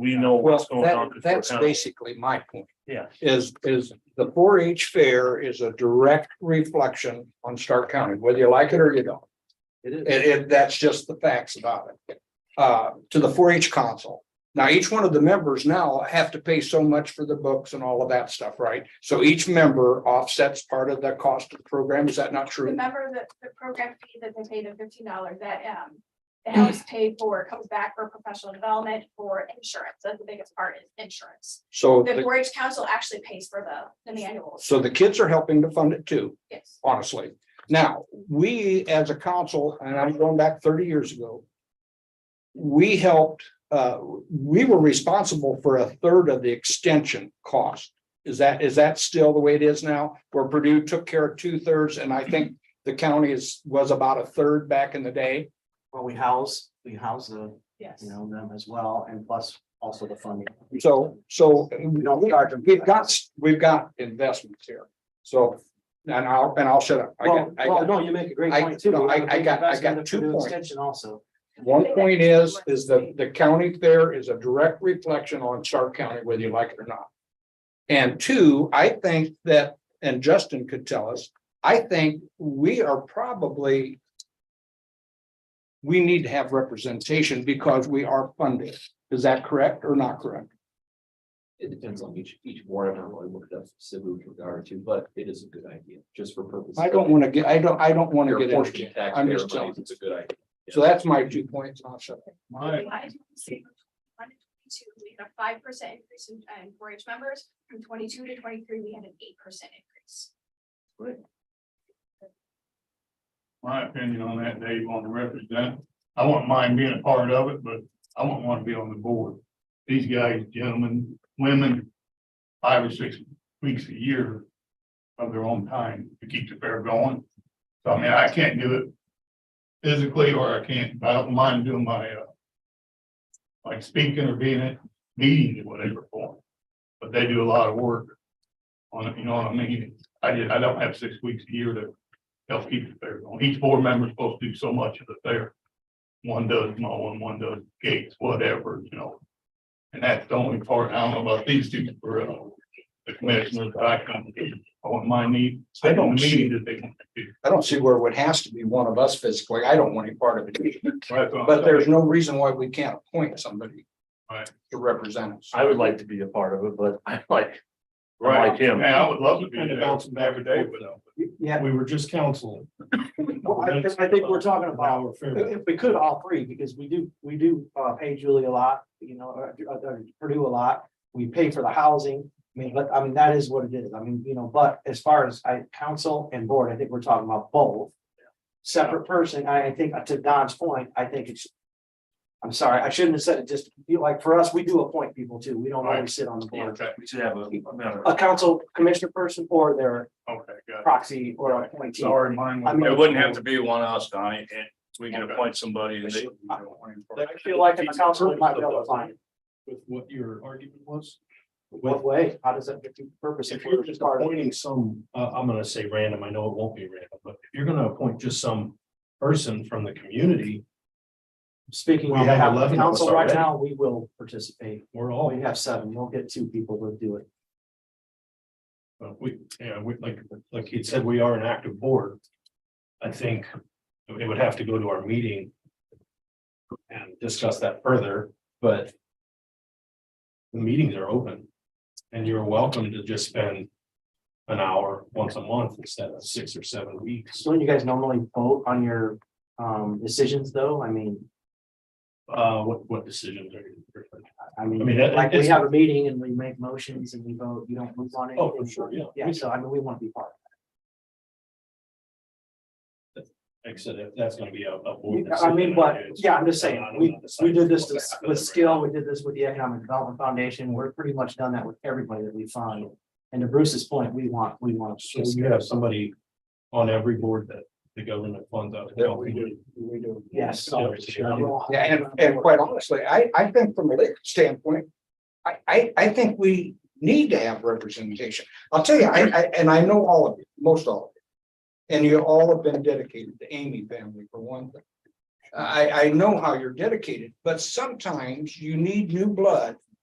we know Well, what's going on. that, 'cause that's we're kind of- basically my point. Yeah. Is, is the four H fair is a direct reflection on Stark County, whether you like it or you don't. It is. And, and that's just the facts about it. Uh, to the four H council. Now, each one of the members now have to pay so much for the books and all of that stuff, right? So each member offsets part of the cost of the program. Is that not true? Remember that the program fee that they paid of fifteen dollars that um. The Mm. house paid for comes back for professional development for insurance. That's the biggest part is insurance. So, The the- four H council actually pays for the the manuals. so the kids are helping to fund it too. Yes. honestly. Now, we as a council, and I'm going back thirty years ago. We helped, uh, we were responsible for a third of the extension cost. Is that, is that still the way it is now? Where Purdue took care of two thirds and I think the county is, was about a third back in the day. Well, we house, we house the, Yes. you know, them as well, and plus also the funding. So, so don't charge them. we've got, we've got investments here. So, and I'll, and I'll shut up. I Well, got, I well, got, no, you make a great I- point too. no, I- We have a I big got- I investment got for two the points. Extension also, one point is, is the, the county fair is a direct reflection on Stark County, whether you like it or not. And two, I think that, and Justin could tell us, I think we are probably. We need to have representation because we are funded. Is that correct or not correct? It depends on each, each board, I don't really look it up specifically with regard to, but it is a good idea, just for purposes. I don't want to get, I don't, I don't want to Your get portion into of I'm taxpayer just telling. monies, it's a good idea. So that's my two points. and I'll shut up. My, Why did we say from 21 to 22, we had a five percent increase in in four H members. From twenty-two to twenty-three, we had an eight percent increase. my opinion on that, Dave, on the represent, I wouldn't mind being a part of it, but I wouldn't want to be on the board. These guys, gentlemen, women, five or six weeks a year of their own time to keep the fair going. So I mean, I can't do it physically or I can't, I don't mind doing my, uh, like speaking or being at meetings, whatever form. But they do a lot of work on it, you know what I mean? I did, I don't have six weeks a year to help keep the fair going. Each board member is supposed to do so much of the fair. One does mowing, one does gates, whatever, you know. And that's the only part, I don't know about these two, for uh, the commissioners, but I come, I want my need, I don't mean that they want to do. I don't see where it would has to be one of us physically. I don't want any part of it. either. That's what I'm But saying. there's no reason why we can't appoint somebody. Right. To represent us. I would like to be a part of it, but I'm like, Right. like him. Man, I would love to be Kind of there bouncing back every and day forth. with them. yeah. We were just council. Well, I, think- I think we're talking about, if we could, all three, because we do, we do, uh, pay Julie a lot, you know, or, or Purdue a lot. We pay for the housing, I mean, but, I mean, that is what it is, I mean, you know, but as far as I, council and board, I think we're talking about both. Separate person, I, I think, uh, to Don's point, I think it's. I'm sorry, I shouldn't have said it, just, you know, like, for us, we do appoint people too, we don't always sit on the board. Okay, We should have a, no, A council commissioner person or their okay, got it. proxy or appointee. Sorry, mine. I mean- it wouldn't have to be one of us, Donnie, and we can appoint somebody and they. I feel like in the council, we might be able to find it. With what your argument was? What way? How does that get to purpose? If you're we're just part of- appointing some, uh, I'm gonna say random, I know it won't be random, but if you're gonna appoint just some person from the community, Speaking We on have behalf of 11 of us council right already. now, we will participate. we're Oh, all, we have seven. We'll get two people to do it. uh, we, yeah, we, like, like he said, we are an active board. I think it would have to go to our meeting and discuss that further, but the meetings are open and you're welcome to just spend an hour once a month instead of six or seven weeks. So you guys normally vote on your um decisions though? I mean, Uh, what, what decisions are you? I I mean, mean, that- like we it's- have a meeting and we make motions and we vote, you don't move on it. Oh, for sure, yeah. Yeah, so I mean, we want to be part. of Like I said, that- that's gonna be a, a. it. board I mean, decision. but It's- yeah, I'm just saying, I'm we not we deciding did this what's with- happening with right skill. We did this with the Economic Development Foundation. We're pretty much done that with everybody that we find. And to Bruce's point, we want, we want. to So you have somebody on every board that the government funds out. of That we do, we do. Yes. Yeah, sure. Yeah, and, and quite honestly, I, I think from a legal standpoint, I, I, I think we need to have representation. I'll tell you, I, I, and I know all of you, most all of you. And you all have been dedicated, the Amy family for one thing. I, I know how you're dedicated, but sometimes you need new blood